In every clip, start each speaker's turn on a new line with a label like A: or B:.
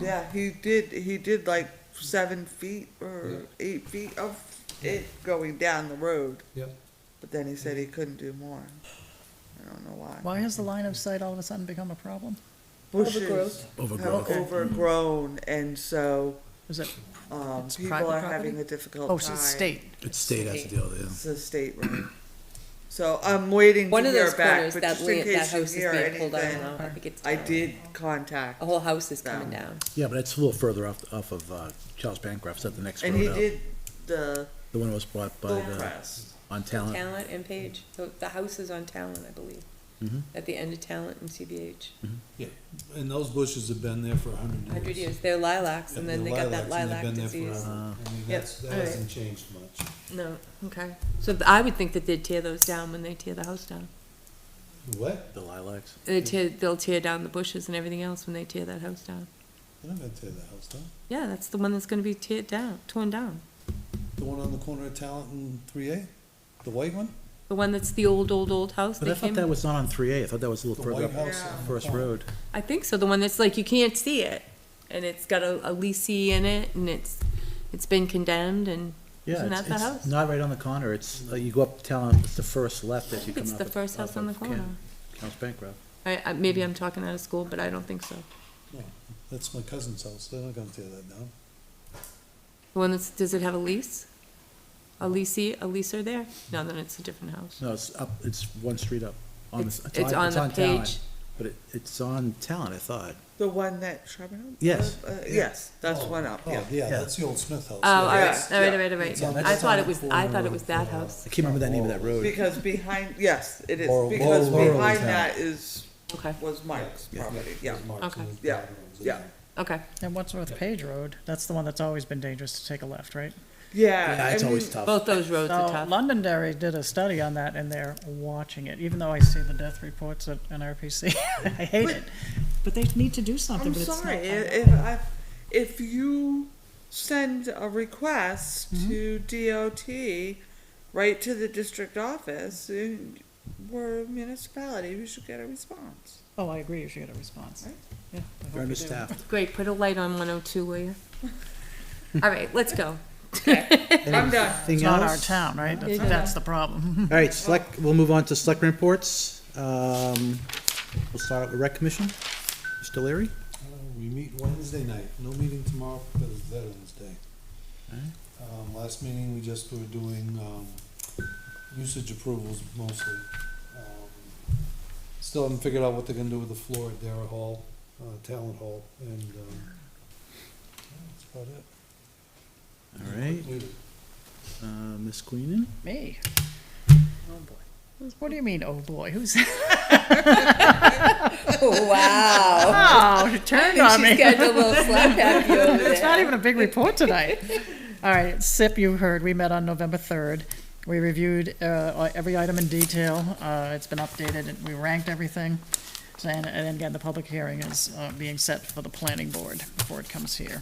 A: Yeah, he did, he did like seven feet or eight feet of it going down the road,
B: Yeah,
A: but then he said he couldn't do more. I don't know why.
C: Why has the line of sight all of a sudden become a problem?
A: Bushes
D: Overgrowth.
A: have overgrown and so,
C: Is it,
A: um,
C: It's
A: people
C: private
A: are having
C: property?
A: a difficult time.
C: oh, so it's state,
E: It's state has to deal with it.
A: It's a state road. So I'm waiting to
D: One of
A: hear
D: those
A: back,
D: corners,
A: but
D: that
A: just in
D: land, that
A: case you
D: house is
A: hear
D: being pulled
A: anything,
D: down. I think it's
A: I
D: down.
A: did contact.
D: A whole house is coming down.
E: Yeah, but it's a little further off, off of, uh, Charles Bancroft's at the next
A: And
E: road
A: he
E: out.
A: did the
E: The one that was bought by, the
A: Hillcrest.
E: on Talent.
D: Talent and Page, the, the house is on Talent, I believe,
B: Mm-hmm.
E: Mhm.
D: at the end of Talent and CBH.
B: and those bushes have been there for a hundred years.
D: Hundred years, they're lilacs, and then they got that
B: They're
D: lilac
B: lilacs, and they've been there uh,
D: disease.
B: forever. I mean,
A: Yep.
B: that's, that
D: Alright.
B: hasn't changed much.
D: No, okay. So th- I would think that they'd tear those down when they tear the house down.
B: What?
E: The lilacs.
D: They tear, they'll tear down the bushes and everything else when they tear that house down.
B: They're not gonna tear the house down.
D: Yeah, that's the one that's gonna be teared down, torn down.
B: The one on the corner of Talent and three A, the white one?
D: The one that's the old, old, old house
E: But I
D: that
E: thought
D: came.
E: that was not on three A, I thought that was a little
B: The
E: further
B: white
E: up
B: house.
A: Yeah.
B: on the
E: First
B: corner.
E: Road.
D: I think so, the one that's like, you can't see it, and it's got a, a leasee in it, and it's, it's been condemned, and
E: Yeah,
D: Isn't
E: it's,
D: that the house?
E: it's not right on the corner, it's, uh, you go up Talent, it's the first left as you come up.
D: it's the
E: of-
D: first house
E: off
D: on the
E: of Ken-
D: corner.
E: Charles Bancroft.
D: I, I, maybe I'm talking out of school, but I don't think so.
B: No, That's my cousin's house, they're not gonna tear that down.
D: The one that's, does it have a lease? A leasee, a leaser there? No, then it's a different house.
E: No, it's up, it's one street up. On the
D: It's,
E: s-
D: it's on the
E: Talent,
D: page.
E: But it, it's on Talent, I thought.
A: The one that Shrubber?
E: Yes.
A: Uh, yes, that's
B: Oh,
A: one up,
B: Oh,
A: yeah.
B: yeah,
E: Yeah.
B: that's the old Smith house.
D: Oh, all
B: yeah.
D: right, all right, all right, all
B: It's
D: right.
B: on Oh,
D: I
B: that
D: thought
B: side
D: it was,
B: corner
D: I thought it
B: road
D: was
B: for
D: that
B: a
D: house.
E: I can't remember the name of that road.
A: Because behind, yes, it is,
B: Laurel-
A: because
B: Laurel- Laurel
A: behind
B: Town.
A: that is,
D: Okay,
A: was Mike's
E: Yeah.
A: property, yeah.
B: It's marked
D: Okay.
B: in the
A: Yeah.
B: patterns in
A: Yeah.
B: there.
D: okay.
C: and what's with Page Road, that's the one that's always been dangerous to take a left, right?
A: Yeah,
E: Yeah,
A: I
E: it's
A: mean,
E: always tough.
D: Both those roads are
C: So
D: tough.
C: Londonderry did a study on that and they're watching it, even though I see the death reports at NRPC, I hate
A: But-
C: it. But they need to do something,
A: I'm
C: but it's not.
A: sorry, i- if, I, if you send a request
E: Mm-hmm.
A: to DOT, right to the district office, and we're a municipality, you should get a response.
C: Oh, I agree, you should get a response.
A: Right.
C: Yeah, I
E: They're
C: hope you do.
E: understaffed.
D: Great, put a light on one oh two, will you? All right, let's go.
A: I'm done.
C: It's not our town, right? That's,
D: Yeah.
C: that's the problem.
E: All right, select, we'll move on to select reports. Um, we'll start out with rec commission. Mr. Leary?
B: Uh, We meet Wednesday night, no meeting tomorrow because it's Veterans Day. Um, last meeting, we just were doing, um, usage approvals mostly. Um, Still haven't figured out what they're gonna do with the floor at Dara Hall, uh, Talent Hall, and, um, that's about it.
E: All right,
B: Completed.
E: uh, Ms. Queenan?
C: Me,
A: Oh, boy.
C: what do you mean, oh boy, who's,
D: Wow.
C: oh, you turned on me.
D: little slap happy over
C: It's not even a big report tonight. All right, SIP, you heard, we met on November 3rd. We reviewed uh, every item in detail. Uh, It's been updated, and we ranked everything. So, And and again, the public hearing is uh, being set for the planning board before it comes here.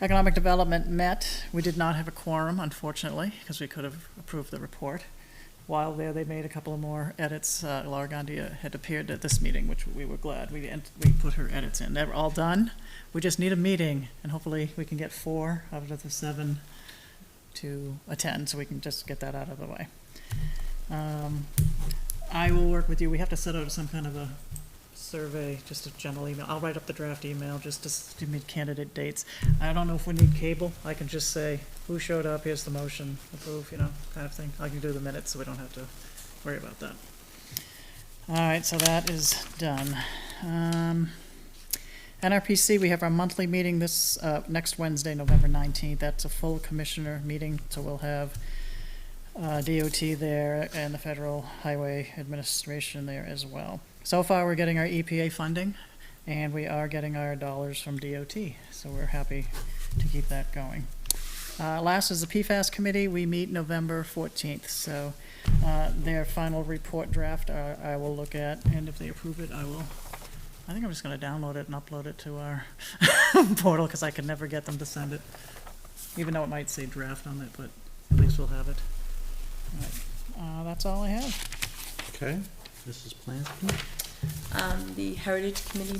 C: Economic Development met. We did not have a quorum, unfortunately, because we could have approved the report. While there, they made a couple of more edits. Uh, Laura Gandia had appeared at this meeting, which we were glad. We, ent- we put her edits in. They're all done. We just need a meeting, and hopefully we can get four out of the seven to attend, so we can just get that out of the way. Um, I will work with you. We have to set out some kind of a survey, just a general email. I'll write up the draft email, just to s- to meet candidate dates. I don't know if we need cable. I can just say, who showed up, here's the motion, approve, you know, kind of thing. I can do the minutes, so we don't have to worry about that. All right, so that is done. Um, NRPC, we have our monthly meeting this, uh, next Wednesday, November nineteenth. That's a full commissioner meeting, so we'll have, uh, DOT there and the Federal Highway Administration there as well. So far, we're getting our EPA funding and we are getting our dollars from DOT, so we're happy to keep that going. Uh, last is the PFAS committee. We meet November fourteenth, so, uh, their final report draft, I, I will look at, and if they approve it, I will I think I'm just gonna download it and upload it to our portal, cause I could never get them to send it. Even though it might say draft on it, but at least we'll have it. All right, Uh, that's all I have.
E: Okay. Mrs. Plansky?
D: Um, the Heritage Committee